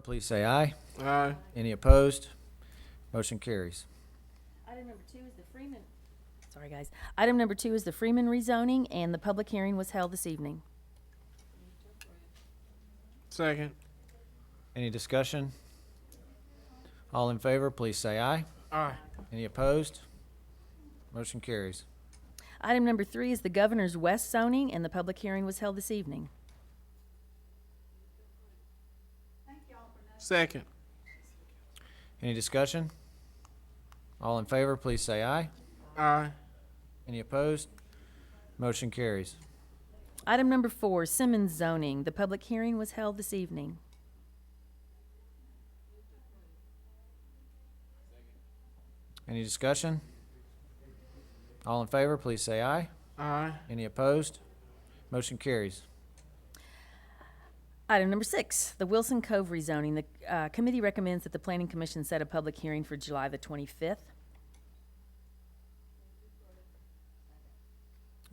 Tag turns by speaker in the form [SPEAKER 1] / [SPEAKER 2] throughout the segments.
[SPEAKER 1] Please say aye.
[SPEAKER 2] Aye.
[SPEAKER 1] Any opposed? Motion carries.
[SPEAKER 3] Item number two is the Freeman. Sorry, guys. Item number two is the Freeman rezoning, and the public hearing was held this evening.
[SPEAKER 2] Second.
[SPEAKER 1] Any discussion? All in favor, please say aye.
[SPEAKER 2] Aye.
[SPEAKER 1] Any opposed? Motion carries.
[SPEAKER 3] Item number three is the Governor's West zoning, and the public hearing was held this evening.
[SPEAKER 2] Second.
[SPEAKER 1] Any discussion? All in favor, please say aye.
[SPEAKER 2] Aye.
[SPEAKER 1] Any opposed? Motion carries.
[SPEAKER 3] Item number four, Simmons zoning. The public hearing was held this evening.
[SPEAKER 1] Any discussion? All in favor, please say aye.
[SPEAKER 2] Aye.
[SPEAKER 1] Any opposed? Motion carries.
[SPEAKER 3] Item number six, the Wilson Cove rezoning. The uh, committee recommends that the Planning Commission set a public hearing for July the 25th.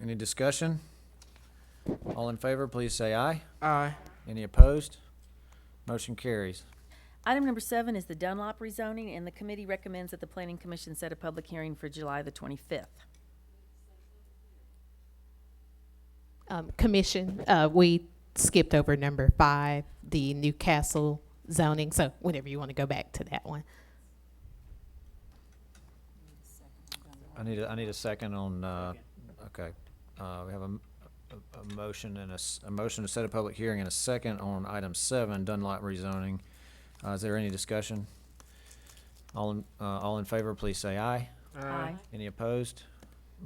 [SPEAKER 1] Any discussion? All in favor, please say aye.
[SPEAKER 2] Aye.
[SPEAKER 1] Any opposed? Motion carries.
[SPEAKER 3] Item number seven is the Dunlop rezoning, and the committee recommends that the Planning Commission set a public hearing for July the 25th.
[SPEAKER 4] Um, commission, uh, we skipped over number five, the Newcastle zoning, so whenever you want to go back to that one.
[SPEAKER 1] I need, a I need a second on, uh, okay. Uh, we have a, m- a- a motion and a, s- a motion to set a public hearing and a second on item seven, Dunlop rezoning. Uh, is there any discussion? All in, uh, all in favor, please say aye.
[SPEAKER 3] Aye.
[SPEAKER 1] Any opposed?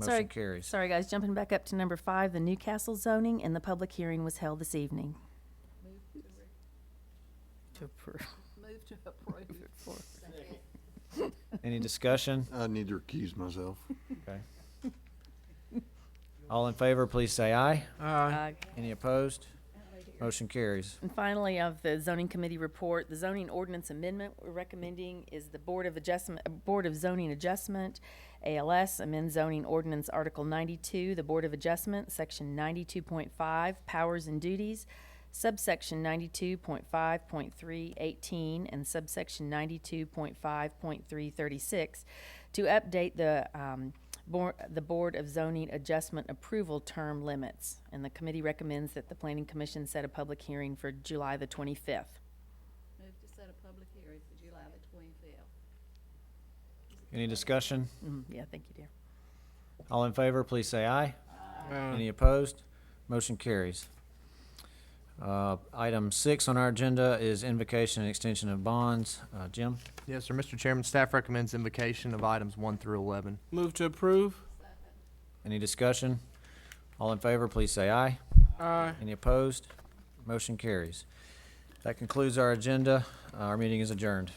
[SPEAKER 3] Sorry-
[SPEAKER 1] Motion carries.
[SPEAKER 3] Sorry, guys, jumping back up to number five, the Newcastle zoning, and the public hearing was held this evening. To approve.
[SPEAKER 1] Any discussion?
[SPEAKER 5] I need to recuse myself.
[SPEAKER 1] Okay. All in favor, please say aye.
[SPEAKER 2] Aye.
[SPEAKER 1] Any opposed? Motion carries.
[SPEAKER 3] And finally, of the zoning committee report, the zoning ordinance amendment we're recommending is the Board of Adjustment, uh, Board of Zoning Adjustment, ALS, amend zoning ordinance Article ninety-two, the Board of Adjustment, Section ninety-two point five, powers and duties, subsection ninety-two point five point three eighteen, and subsection ninety-two point five point three thirty-six, to update the, um, Board, the Board of Zoning Adjustment Approval Term Limits, and the committee recommends that the Planning Commission set a public hearing for July the 25th.
[SPEAKER 6] Move to set a public hearing for July the twenty-fifth.
[SPEAKER 1] Any discussion?
[SPEAKER 3] Mm, Yeah, thank you, dear.
[SPEAKER 1] All in favor, please say aye.
[SPEAKER 2] Aye.
[SPEAKER 1] Any opposed? Motion carries. Uh, Item six on our agenda is invocation and extension of bonds. Uh, Jim,
[SPEAKER 7] Yes, sir. Mr. Chairman, staff recommends invocation of items one through 11.
[SPEAKER 2] Move to approve.
[SPEAKER 1] any discussion? All in favor, please say aye.
[SPEAKER 2] Aye.
[SPEAKER 1] Any opposed? Motion carries. That concludes our agenda. Our meeting is adjourned.